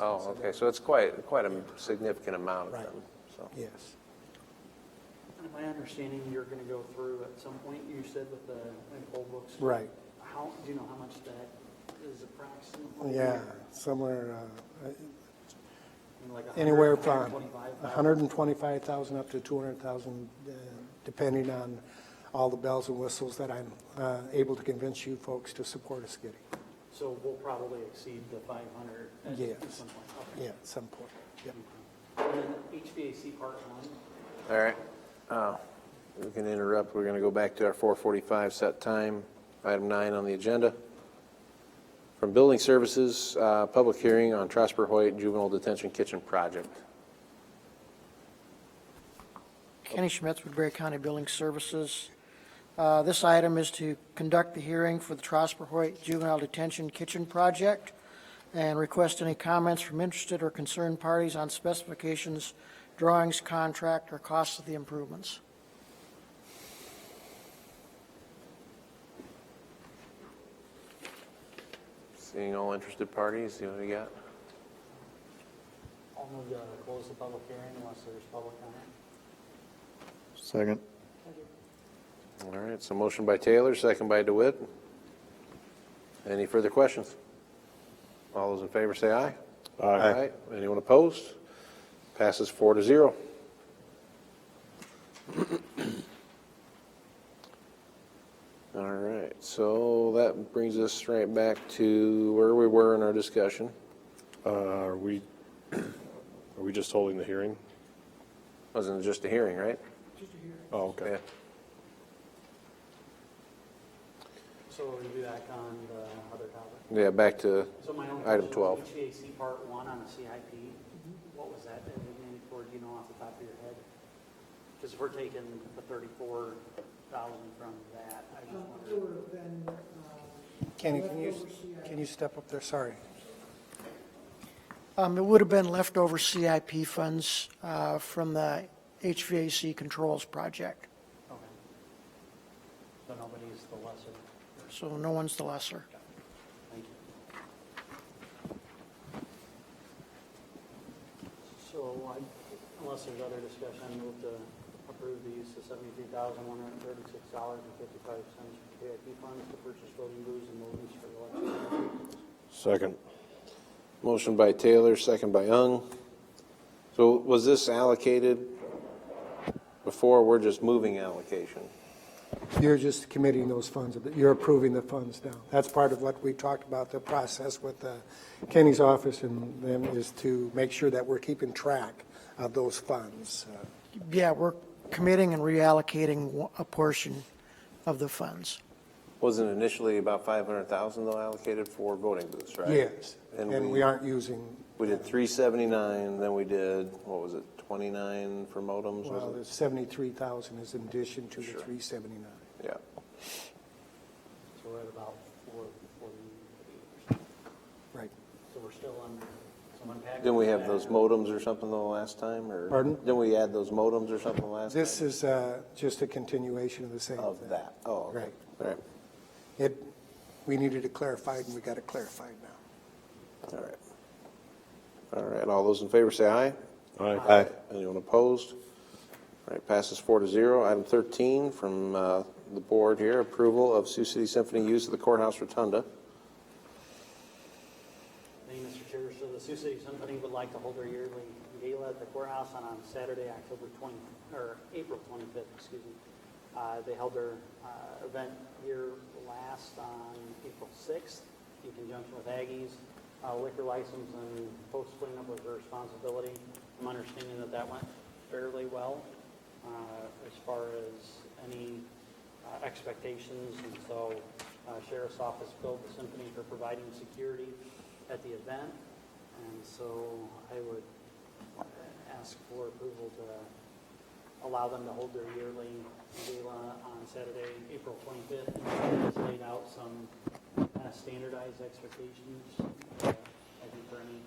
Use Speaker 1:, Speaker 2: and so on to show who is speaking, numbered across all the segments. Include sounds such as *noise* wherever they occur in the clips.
Speaker 1: Oh, okay, so it's quite, quite a significant amount of
Speaker 2: Right.
Speaker 1: them, so.
Speaker 2: Yes.
Speaker 3: And My understanding, you're going to go through at some point, you said with the like, poll books.
Speaker 2: Right.
Speaker 3: How, do you know how much that is approximately?
Speaker 2: Yeah, somewhere, uh,
Speaker 3: And like a hundred,
Speaker 2: anywhere from
Speaker 3: 125,000?
Speaker 2: 125,000 up to 200,000, uh, depending on all the bells and whistles that I'm uh, able to convince you folks to support us getting.
Speaker 3: So we'll probably exceed the five hundred at
Speaker 2: Yes.
Speaker 3: some point.
Speaker 2: Yeah,
Speaker 3: Okay.
Speaker 2: at some point. Yeah.
Speaker 3: And then HVAC part one,
Speaker 1: All right, uh, we can interrupt, we're gonna go back to our four forty-five set time, item nine on the agenda. From Building Services, uh, public hearing on Trosper Hoyt Juvenile Detention Kitchen Project.
Speaker 4: Kenny Schmitz with Berry County Building Services. Uh, This item is to conduct the hearing for the Trosper Hoyt Juvenile Detention Kitchen Project and request any comments from interested or concerned parties on specifications, drawings, contract, or costs of the improvements.
Speaker 1: Seeing all interested parties, see what we got?
Speaker 3: I'll move to close the public hearing unless there's public comment.
Speaker 5: Second.
Speaker 1: All right, so motion by Taylor, second by DeWitt. Any further questions? All those in favor say aye. Aye. Anyone opposed? Passes four to zero. *clears throat* All right, so that brings us right back to where we were in our discussion.
Speaker 5: Uh, Are we, are we just holding the hearing?
Speaker 1: Wasn't just a hearing, right?
Speaker 5: Oh, okay.
Speaker 3: So we're going to do that on the other topic.
Speaker 1: Yeah, Yeah, back to
Speaker 3: So my only
Speaker 1: item
Speaker 3: question,
Speaker 1: 12.
Speaker 3: HVAC part one on a CIP, what was that designated for, do you know off the top of your head? Because if we're taking the thirty-four thousand from that, I just wonder,
Speaker 2: Kenny, can you, can you step up there? Sorry.
Speaker 4: Um, It would have been leftover CIP funds uh, from the HVAC controls project,
Speaker 3: okay. So nobody's the lesser,
Speaker 4: so no one's the lesser.
Speaker 3: thank you. So I, unless there's other discussion, I move to approve the use of seventy-three thousand, one hundred and thirty-six dollars and fifty-five cents for CIP funds to purchase voting booths and movies for the election.
Speaker 5: Second.
Speaker 1: Motion by Taylor, second by Ung. So was this allocated before? We're just moving allocation.
Speaker 2: You're just committing those funds, you're approving the funds now. That's part of what we talked about, the process with uh, Kenny's office and them is to make sure that we're keeping track of those funds. Uh,
Speaker 4: Yeah, we're committing and reallocating a portion of the funds.
Speaker 1: Wasn't initially about 500,000 though allocated for voting booths, right?
Speaker 2: Yes,
Speaker 1: And
Speaker 2: and we
Speaker 1: we,
Speaker 2: aren't using,
Speaker 1: we did 379, then we did, what was it, 29 for modems,
Speaker 2: well,
Speaker 1: was
Speaker 2: the
Speaker 1: it?
Speaker 2: 73,000 is in addition to the
Speaker 1: Sure.
Speaker 2: 379.
Speaker 1: Yeah.
Speaker 3: So we're at about four, forty-eight,
Speaker 2: Right.
Speaker 3: so we're still under, so unpacking.
Speaker 1: Didn't we have those
Speaker 3: that.
Speaker 1: modems or something the last time, or?
Speaker 2: Pardon?
Speaker 1: Didn't we add those modems or something last time?
Speaker 2: This is uh, just a continuation of the same
Speaker 1: Of
Speaker 2: thing.
Speaker 1: that, oh, okay.
Speaker 2: Right.
Speaker 1: All right,
Speaker 2: It, we needed it clarified, and we got it clarified now.
Speaker 1: all right. All right, all those in favor say aye.
Speaker 5: Aye.
Speaker 1: Anyone opposed? All right, passes four to zero. Item 13 from uh, the board here, approval of Sioux City Symphony use of the courthouse rotunda.
Speaker 3: Thank you, Mr. Chair. So the Sioux City Symphony would like to hold their yearly gala at the courthouse on, on Saturday, October 20, or April 25th, excuse me. Uh, They held their uh, event here last on April 6th in conjunction with Aggie's uh, liquor license and post cleanup was their responsibility. I'm understanding that that went fairly well uh, as far as any uh, expectations, and so uh, Sheriff's Office billed the Symphony for providing security at the event, and so I would uh, ask for approval to allow them to hold their yearly gala on Saturday, April 25th, and it's laid out some kind of standardized expectations, uh, I think for any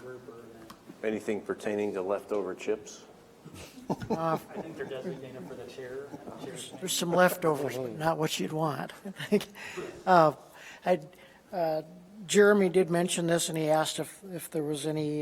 Speaker 3: group or event.
Speaker 1: Anything pertaining to leftover chips?
Speaker 3: I think they're designated for the chair, chair's
Speaker 4: There's some *laughs* leftovers, but not what you'd want. Uh, I, uh, Jeremy did mention this, and he asked if, if there was any